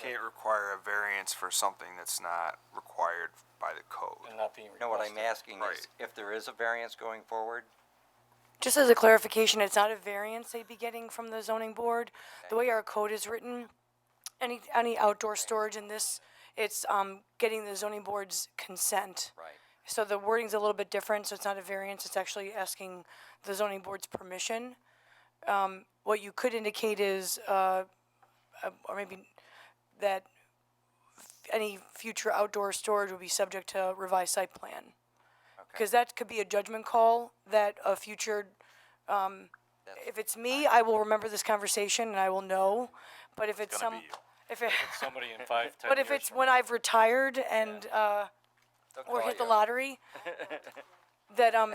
can't require a variance for something that's not required by the code. and not being No, requested. what I'm asking Right. is, if there is a variance going forward, Just as a clarification, it's not a variance they'd be getting from the zoning board. The way our code is written, any, any outdoor storage in this, it's, um, getting the zoning board's consent. right, So the wording's a little bit different, so it's not a variance, it's actually asking the zoning board's permission. Um, what you could indicate is, uh, uh, or maybe that any future outdoor storage would be subject to revised site plan. Because that could be a judgment call that a future, um, if it's me, I will remember this conversation and I will know. But if it's some, gonna be you. if it, Somebody in five, ten but years if it's from when I've retired and, uh, They'll or call hit the you. lottery, that um,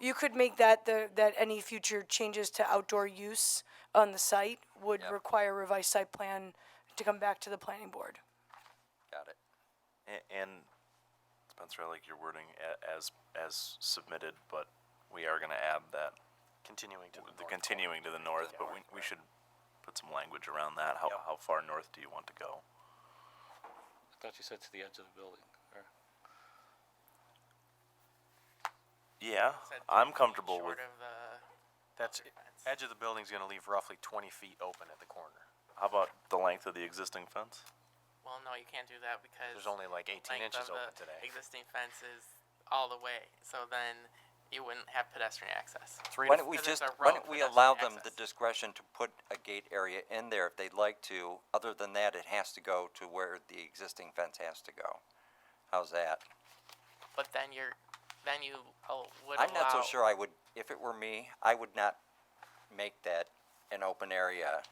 you could make that the, that any future changes to outdoor use on the site would Yep. require revised site plan to come back to the planning board. Got it. A- And Spencer, I like your wording a- as, as submitted, but we are gonna add that. Continuing to the north. Continuing to the north, but we, we should put some language around that. How, how far north do you want to go? I thought you said to the edge of the building, or, Yeah, I'm comfortable with, Short of the, That's, edge of the building's gonna leave roughly twenty feet open at the corner. how about the length of the existing fence? well, no, you can't do that because. There's only like eighteen length inches of the open today. Existing fence is all the way, so then you wouldn't have pedestrian access. Three Why to don't we Because just, it's a why don't road for we them to allow them the access. discretion to put a gate area in there if they'd like to? Other than that, it has to go to where the existing fence has to go. How's that? But then you're, then you al- would allow. I'm not so sure I would, if it were me, I would not make that an open area.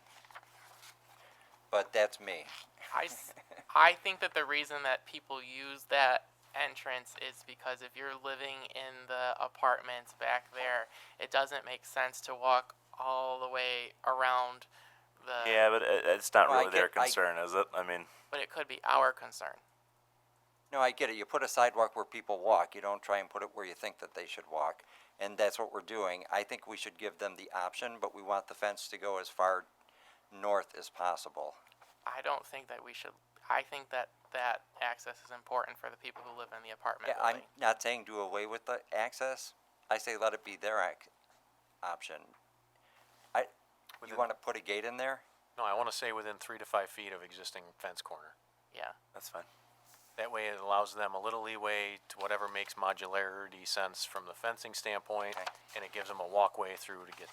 But that's me. I, s- I think that the reason that people use that entrance is because if you're living in the apartments back there, it doesn't make sense to walk all the way around the. Yeah, but it, it's not Well, I really their get- I- concern, is it? I mean, But it could be our concern. No, I get it. You put a sidewalk where people walk. You don't try and put it where you think that they should walk. And that's what we're doing. I think we should give them the option, but we want the fence to go as far north as possible. I don't think that we should. I think that that access is important for the people who live in the apartment Yeah, I'm building. not saying do away with the access. I say let it be their ac- option. I, you Within- wanna put a gate in there? No, I wanna say within three to five feet of existing fence corner. yeah. that's fine. That way it allows them a little leeway to whatever makes modularity sense from the fencing standpoint, Okay. and it gives them a walkway through to get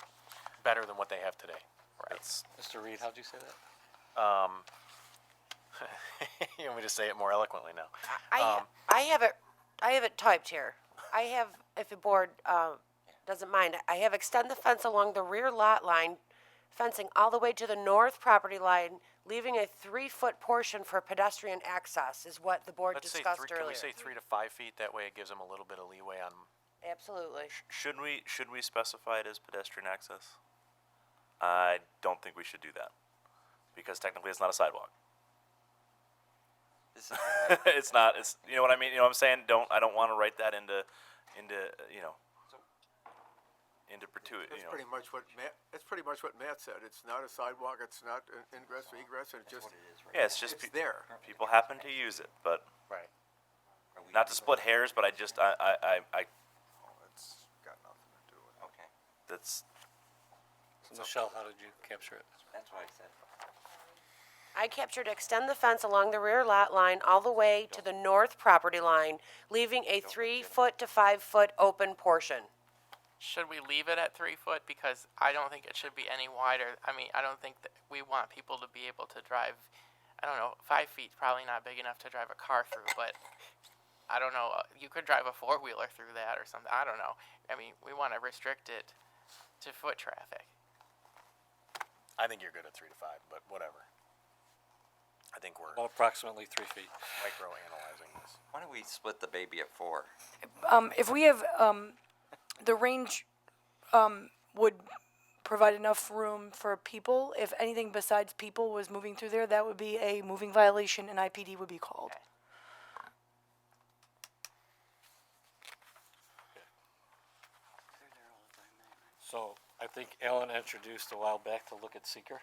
better than what they have today. That's, Mr. Reed, how'd you say that? You want me to say it more eloquently now? I, Um, I have it, I have it typed here. I have, if the board, um, doesn't mind, I have extend the fence along the rear lot line, fencing all the way to the north property line, leaving a three-foot portion for pedestrian access is what the board Let's say discussed three, can earlier. we say three to five feet? That way it gives them a little bit of leeway on, Absolutely. should we, should we specify it as pedestrian access? I don't think we should do that, because technically it's not a sidewalk. This is, it's not. It's you know what I mean. You know what I'm saying. Don't I don't want to write that into into uh, you know into perpetuity. That's You know. pretty much what Matt, that's pretty much what Matt said. It's not a sidewalk, it's not an ingress or egress, and it's just, yeah, it's just it's pe- there. people happen to use it, but right. not to split hairs. But I just I I, I, I It's got nothing to do with it. okay, that's So Michelle, how did you capture it? that's what I said. I captured extend the fence along the rear lot line all the way to the north property line, leaving a three-foot to five-foot open portion. Should we leave it at three foot? Because I don't think it should be any wider. I mean, I don't think that we want people to be able to drive. I don't know. Five feet probably not big enough to drive a car through, but I don't know. uh, You could drive a four wheeler through that or something. I don't know. I mean, we want to restrict it to foot traffic. I think you're good at three to five, but whatever. I think we're Well, approximately three feet. micro analyzing this. Why don't we split the baby at four? Um, if we have, um, the range, um, would provide enough room for people. If anything besides people was moving through there, that would be a moving violation and IPD would be called. So I think Alan introduced a while back to look at seeker.